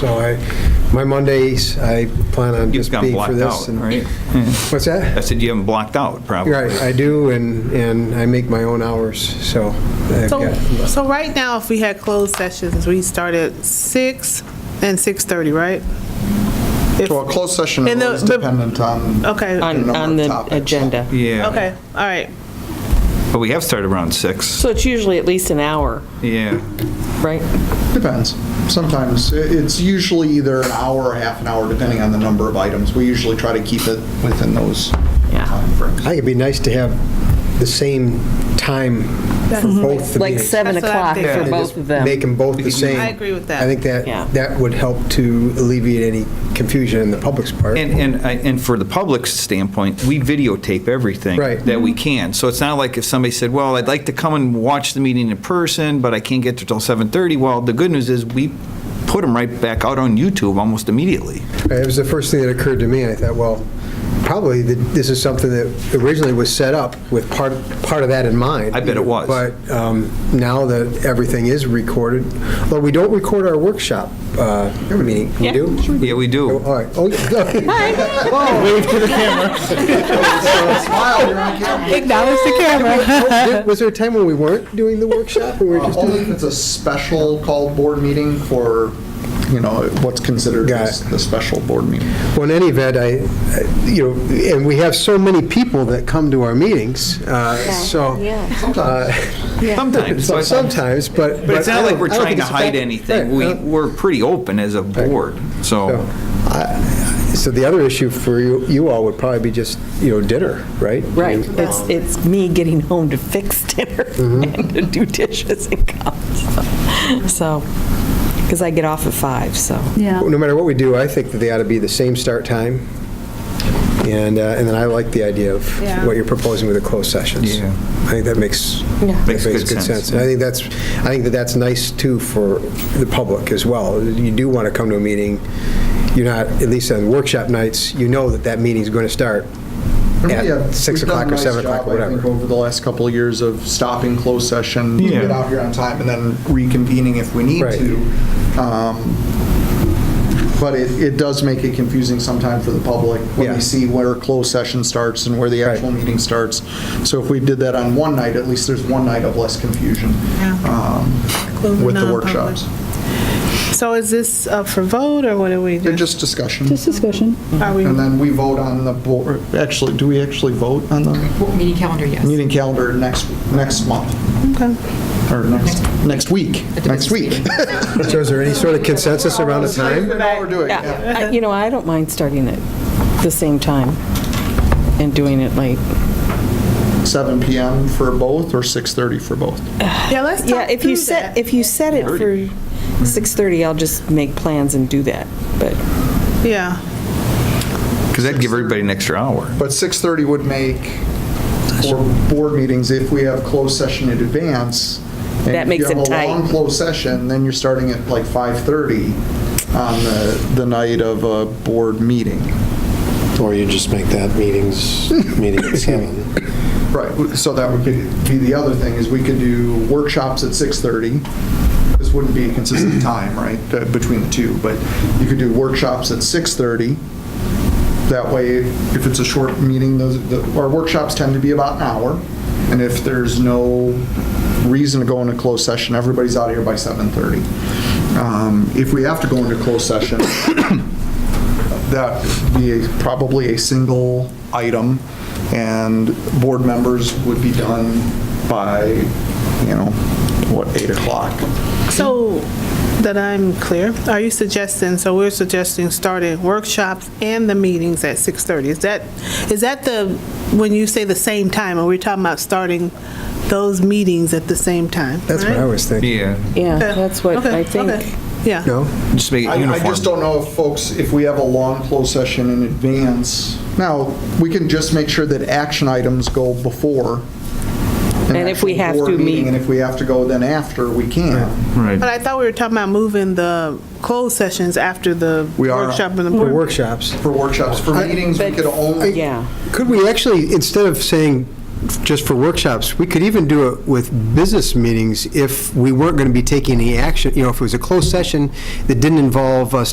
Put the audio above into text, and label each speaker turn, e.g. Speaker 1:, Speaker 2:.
Speaker 1: So I, my Mondays, I plan on
Speaker 2: You've
Speaker 1: just
Speaker 2: got
Speaker 1: being for
Speaker 2: blocked
Speaker 1: this.
Speaker 2: out,
Speaker 1: and-
Speaker 2: right?
Speaker 1: What's
Speaker 2: I
Speaker 1: that?
Speaker 2: said you haven't blocked out, probably.
Speaker 1: Right, I do, and, and I make my own hours, so. I've
Speaker 3: So,
Speaker 1: got-
Speaker 3: so right now, if we had closed sessions, we start at six and 6:30, right? If-
Speaker 4: Well, closed session is
Speaker 3: And the-
Speaker 4: always
Speaker 3: the-
Speaker 4: dependent on.
Speaker 3: Okay.
Speaker 4: the
Speaker 3: On-
Speaker 4: number
Speaker 5: on,
Speaker 4: of
Speaker 5: on the
Speaker 4: topics.
Speaker 5: agenda.
Speaker 2: Yeah.
Speaker 3: Okay, all right.
Speaker 2: But we have started around six.
Speaker 5: So it's usually at least an hour,
Speaker 2: Yeah.
Speaker 5: right?
Speaker 4: Depends. Sometimes, i- it's usually either an hour or half an hour, depending on the number of items. We usually try to keep it within those
Speaker 5: Yeah.
Speaker 1: I think
Speaker 4: timeframes.
Speaker 1: it'd be nice to have the same time for both the
Speaker 5: Like
Speaker 1: meetings.
Speaker 5: seven
Speaker 3: That's what I'm
Speaker 5: o'clock for
Speaker 3: thinking.
Speaker 1: And
Speaker 5: both
Speaker 1: just
Speaker 5: of them.
Speaker 1: Make them both the same.
Speaker 3: I agree with that.
Speaker 1: I think
Speaker 5: Yeah.
Speaker 1: that, that would help to alleviate any confusion in the public's part.
Speaker 2: And, and, I- and for the public's standpoint, we videotape everything.
Speaker 1: Right.
Speaker 2: That we can. So it's not like if somebody said, well, I'd like to come and watch the meeting in person, but I can't get there till 7:30. Well, the good news is we put them right back out on YouTube almost immediately.
Speaker 1: It was the first thing that occurred to me, and I thought, well, probably th- this is something that originally was set up with part, part of that in mind.
Speaker 2: I bet it was.
Speaker 1: But um, now that everything is recorded, although we don't record our workshop uh, meeting, we
Speaker 5: Yeah.
Speaker 1: do?
Speaker 2: Yeah, we
Speaker 1: Oh,
Speaker 2: do.
Speaker 1: All right, oh, yeah.
Speaker 4: Smile, you're on camera.
Speaker 5: Acknowledge the camera.
Speaker 1: Did- Was there a time when we weren't doing the workshop? We were
Speaker 4: Uh,
Speaker 1: just
Speaker 4: Only
Speaker 1: doing,
Speaker 4: if it's a special called board meeting for, you know, what's considered
Speaker 1: Got
Speaker 4: as
Speaker 1: it.
Speaker 4: the special board meeting.
Speaker 1: well, in any event, I, I- you know, and we have so many people that come to our meetings, uh, so. uh,
Speaker 2: Sometimes.
Speaker 1: so
Speaker 2: So it's-
Speaker 1: Sometimes, but.
Speaker 2: But it's
Speaker 1: I
Speaker 2: not
Speaker 1: don't-
Speaker 2: like we're
Speaker 1: I don't
Speaker 2: trying
Speaker 1: think
Speaker 2: to
Speaker 1: it's
Speaker 2: hide
Speaker 1: affect-
Speaker 2: anything.
Speaker 1: Right,
Speaker 2: We,
Speaker 1: no.
Speaker 2: we're pretty open as a board, so.
Speaker 1: I- So the other issue for you, you all would probably be just, you know, dinner, right?
Speaker 5: Right, it's, it's me getting home to fix dinner
Speaker 4: Mm-hmm.
Speaker 5: and to do dishes and cups. So, because I get off at five, so.
Speaker 6: Yeah.
Speaker 1: No matter what we do, I think that they ought to be the same start time. And, uh, and then I like the idea of
Speaker 3: Yeah.
Speaker 1: what you're proposing with the closed sessions.
Speaker 2: Yeah.
Speaker 1: I think that makes,
Speaker 5: Yeah.
Speaker 1: that makes
Speaker 2: Makes good
Speaker 1: good
Speaker 2: sense.
Speaker 1: sense. And I think that's, I think that that's nice too for the public as well. You do want to come to a meeting, you're not, at least on workshop nights, you know that that meeting's going to start
Speaker 4: Yeah,
Speaker 1: at 6
Speaker 4: uh, we've done a
Speaker 1: o'clock or
Speaker 4: nice
Speaker 1: 7 o'clock,
Speaker 4: job,
Speaker 1: or
Speaker 4: I think,
Speaker 1: whatever.
Speaker 4: Over the last couple of years of stopping closed session,
Speaker 2: Yeah.
Speaker 4: get out here on time, and then reconvening if we need
Speaker 1: Right.
Speaker 4: to. Um, But it, it does make it confusing sometimes for the public when
Speaker 1: Yeah.
Speaker 4: they see where closed session starts and where the
Speaker 1: Right.
Speaker 4: actual meeting starts. So if we did that on one night, at least there's one night of less confusion um,
Speaker 3: Include
Speaker 4: with the
Speaker 3: non-public.
Speaker 4: workshops.
Speaker 3: So is this up for vote, or what are we
Speaker 4: They're
Speaker 3: doing?
Speaker 4: just discussion.
Speaker 6: Just discussion.
Speaker 3: Are we,
Speaker 4: And then we vote on the board, actually, do we actually vote on the
Speaker 7: Meeting calendar, yes.
Speaker 4: meeting calendar next, next month?
Speaker 3: okay.
Speaker 4: Or next, next week, next week.
Speaker 1: So is there any sort of consensus around a time?
Speaker 4: We're doing, yeah.
Speaker 5: Yeah, I- you know, I don't mind starting at the same time and doing it late.
Speaker 4: 7 PM for both or 6:30 for both?
Speaker 3: Yeah, let's talk
Speaker 5: Yeah, if
Speaker 3: through
Speaker 5: you set,
Speaker 3: that.
Speaker 5: if you set it for 6:30, I'll just make plans and do that, but.
Speaker 3: Yeah,
Speaker 2: Because that'd give everybody an extra hour.
Speaker 4: But 6:30 would make for board meetings, if we have closed session in advance. and
Speaker 5: That makes it
Speaker 4: If you have
Speaker 5: tight.
Speaker 4: a long closed session, then you're starting at like 5:30 on the, the night of a board meeting.
Speaker 8: Or you just make that meetings, meeting at seven.
Speaker 4: Right, so that would be be the other thing, is we could do workshops at 6:30. This wouldn't be a consistent time, right, uh, between the two, but you could do workshops at 6:30. That way, if it's a short meeting, those, the- our workshops tend to be about an hour, and if there's no reason to go into closed session, everybody's out of here by 7:30. Um, If we have to go into closed session, that be a- probably a single item, and board members would be done by, you know, what, 8 o'clock?
Speaker 3: so that I'm clear, are you suggesting, so we're suggesting starting workshops and the meetings at 6:30? Is that, is that the, when you say the same time, are we talking about starting those meetings at the same time?
Speaker 1: That's what I
Speaker 3: right?
Speaker 1: was thinking.
Speaker 2: Yeah.
Speaker 5: Yeah, that's what
Speaker 3: Okay,
Speaker 5: I think.
Speaker 3: okay. Yeah.
Speaker 1: No?
Speaker 2: Just make it
Speaker 4: I I
Speaker 2: uniform.
Speaker 4: just don't know if folks, if we have a long closed session in advance. Now, we can just make sure that action items go before. an
Speaker 5: And if we
Speaker 4: actual
Speaker 5: have
Speaker 4: board
Speaker 5: to
Speaker 4: meeting,
Speaker 5: meet-
Speaker 4: And if we have to go then after, we can.
Speaker 2: Right.
Speaker 3: But I thought we were talking about moving the closed sessions after the
Speaker 4: We are.
Speaker 3: workshop and the
Speaker 1: For
Speaker 3: board.
Speaker 1: workshops.
Speaker 4: For workshops, for meetings, we
Speaker 5: but-
Speaker 4: could only.
Speaker 5: Yeah,
Speaker 1: Could we actually, instead of saying just for workshops, we could even do it with business meetings if we weren't going to be taking any action, you know, if it was a closed session that didn't involve us